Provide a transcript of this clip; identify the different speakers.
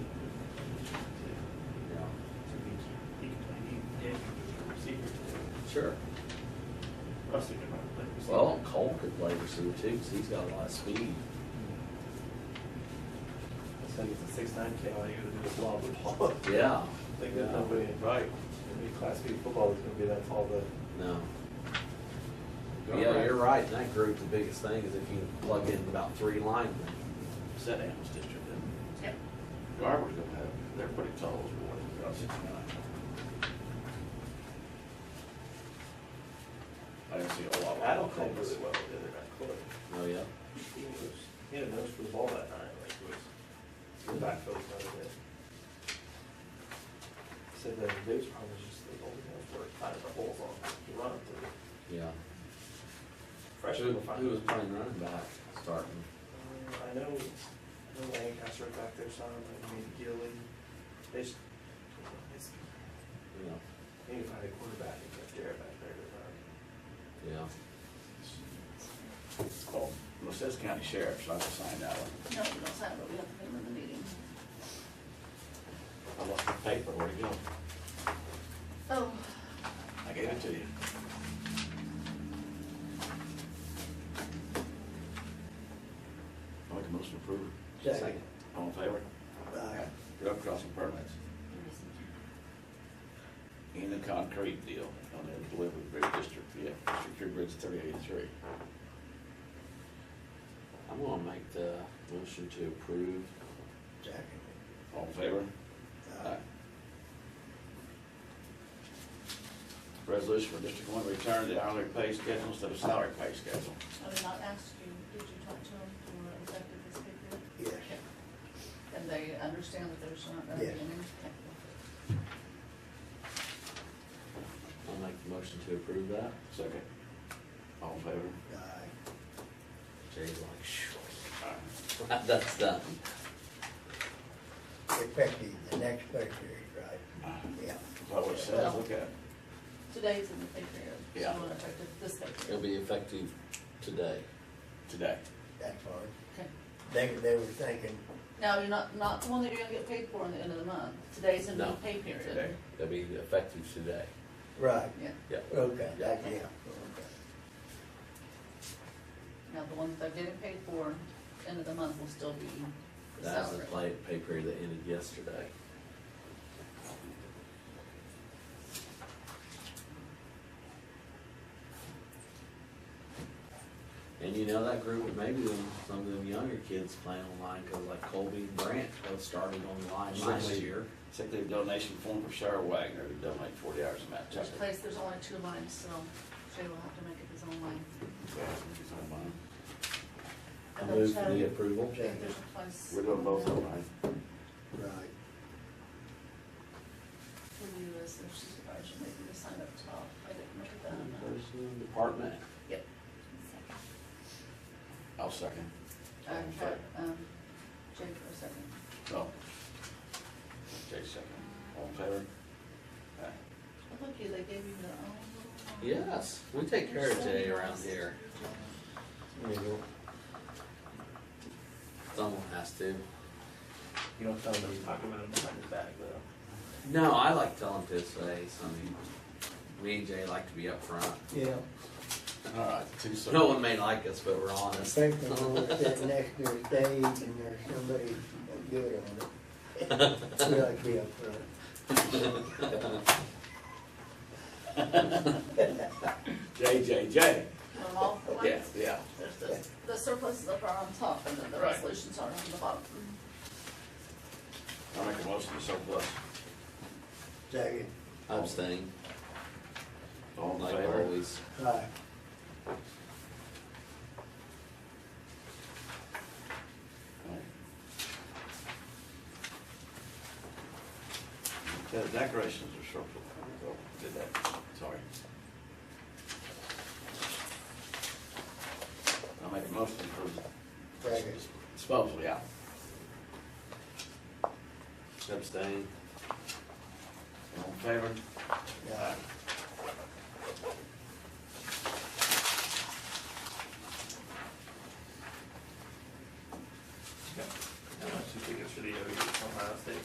Speaker 1: Sure.
Speaker 2: I was thinking about labor receiver.
Speaker 1: Well, Cole could play receiver too, because he's got a lot of speed.
Speaker 3: It's gonna get the six nine KLA to do the lob ball.
Speaker 1: Yeah.
Speaker 3: Like there's nobody,
Speaker 2: Right.
Speaker 3: any class B football is gonna be that's all the.
Speaker 1: No.
Speaker 2: Go
Speaker 1: Yeah,
Speaker 2: right.
Speaker 1: you're right. In that group, the biggest thing is if you plug in about three linemen. Said Adams District, didn't
Speaker 2: Garber's gonna have, they're putting tall as we want. I didn't see a lot. of-
Speaker 3: I don't think really well the other night, Corey.
Speaker 1: it? Oh, yeah.
Speaker 3: He was, he had a nose for the ball that night, like it was, the backfield was not good. Said that the biggest problem was just the golden nose where it finds the holes on, it. you run it through.
Speaker 1: Yeah. Who,
Speaker 3: Freshman will find.
Speaker 1: who was
Speaker 3: it.
Speaker 1: playing running back starting?
Speaker 3: Uh, I know, I know Lancaster back there, son, like maybe Gilly, they just, it's,
Speaker 1: Yeah.
Speaker 3: they need to find a quarterback and get Jared back there um, to run.
Speaker 1: Yeah.
Speaker 2: Oh, Well, it says county sheriff, so I can sign that one.
Speaker 4: No, we don't sign, but we have to put them in the meeting.
Speaker 2: I lost the paper, where'd it go?
Speaker 4: Oh,
Speaker 2: I gave it to you. I make a motion to approve.
Speaker 3: Second.
Speaker 2: All in favor?
Speaker 3: Aye.
Speaker 2: Road crossing permits. In the concrete deal on the delivery bridge district, yeah, secure bridge thirty eighty-three.
Speaker 1: I'm gonna make the motion to approve.
Speaker 3: Jack.
Speaker 2: All in favor? Aye. Resolution for District One, return to hourly pay schedule instead of salary pay schedule.
Speaker 4: I did not ask you, did you talk to them for effective this figure?
Speaker 3: Yes.
Speaker 4: And they understand that there's not gonna be
Speaker 3: Yes.
Speaker 4: any impact?
Speaker 1: I'll make the motion to approve that.
Speaker 2: Second. All in favor?
Speaker 3: Aye.
Speaker 1: Jay's like, shh,
Speaker 2: Aye.
Speaker 1: that's done.
Speaker 5: Effective the next paycheck, right?
Speaker 2: Aye.
Speaker 5: Yeah.
Speaker 2: That's what it says, look at it.
Speaker 4: Today's in the figure, so
Speaker 2: Yeah.
Speaker 4: we're effective this figure.
Speaker 1: It'll be effective today.
Speaker 2: today.
Speaker 5: That's fine.
Speaker 4: Okay.
Speaker 5: They, they were thinking,
Speaker 4: Now, you're not, not the one that you're gonna get paid for in the end of the month, today's in the
Speaker 1: No.
Speaker 4: pay period.
Speaker 2: Today.
Speaker 1: It'll be effective today.
Speaker 5: right,
Speaker 4: Yeah,
Speaker 1: Yeah.
Speaker 5: okay, that's, yeah.
Speaker 4: now the ones that they're getting paid for, end of the month will still be the
Speaker 1: That was the
Speaker 4: salary.
Speaker 1: play, pay period that ended yesterday. And you know, that group, maybe them, some of them younger kids playing online, cause like Colby and Brandt both started online last
Speaker 2: Certainly.
Speaker 1: year.
Speaker 2: Sick leave donation form for Sarah Wagner to donate forty hours to Matt
Speaker 4: Which
Speaker 2: Tucker.
Speaker 4: place, there's only two lines, so Jay will have to make up his own line.
Speaker 1: I
Speaker 4: And then
Speaker 1: move for
Speaker 4: Chad-
Speaker 1: the approval.
Speaker 4: There's a place.
Speaker 2: We're doing both of them, right?
Speaker 5: Right.
Speaker 4: For you as their supervisor, maybe to sign up top, I didn't look at that.
Speaker 1: Person, department.
Speaker 4: Yep.
Speaker 2: I'll second.
Speaker 4: I had, um, Jay for a second.
Speaker 2: So. Jay second. All in favor? Aye.
Speaker 4: Oh, Look, you, they gave you their own little.
Speaker 1: Yes, we take care of Jay around here. Someone has to.
Speaker 3: You don't tell them, you talk about him behind his back, though.
Speaker 1: No, I like telling his face. I mean, me and Jay like to be upfront.
Speaker 5: Yeah,
Speaker 2: All right, two so.
Speaker 1: No one may like us, but we're
Speaker 5: I
Speaker 1: honest.
Speaker 5: think they're gonna sit next to their stage and there's somebody good on it. We like to be up front.
Speaker 2: J, J, J.
Speaker 4: They're all for
Speaker 2: Yeah,
Speaker 4: like,
Speaker 2: yeah.
Speaker 4: there's the, the surpluses up are on top and then the
Speaker 2: Right.
Speaker 4: resolutions are on the bottom.
Speaker 2: I make a motion to surplus.
Speaker 5: Second,
Speaker 1: I abstain,
Speaker 2: All in
Speaker 1: like
Speaker 2: favor?
Speaker 1: always.
Speaker 5: right,
Speaker 2: Yeah, decorations are surplus. Oh, Did that, sorry. I make a motion to approve.
Speaker 5: second,
Speaker 2: Disposal, yeah.
Speaker 1: Abstain.
Speaker 2: All in favor?
Speaker 5: right.
Speaker 3: How much you think it should be, Ohio State?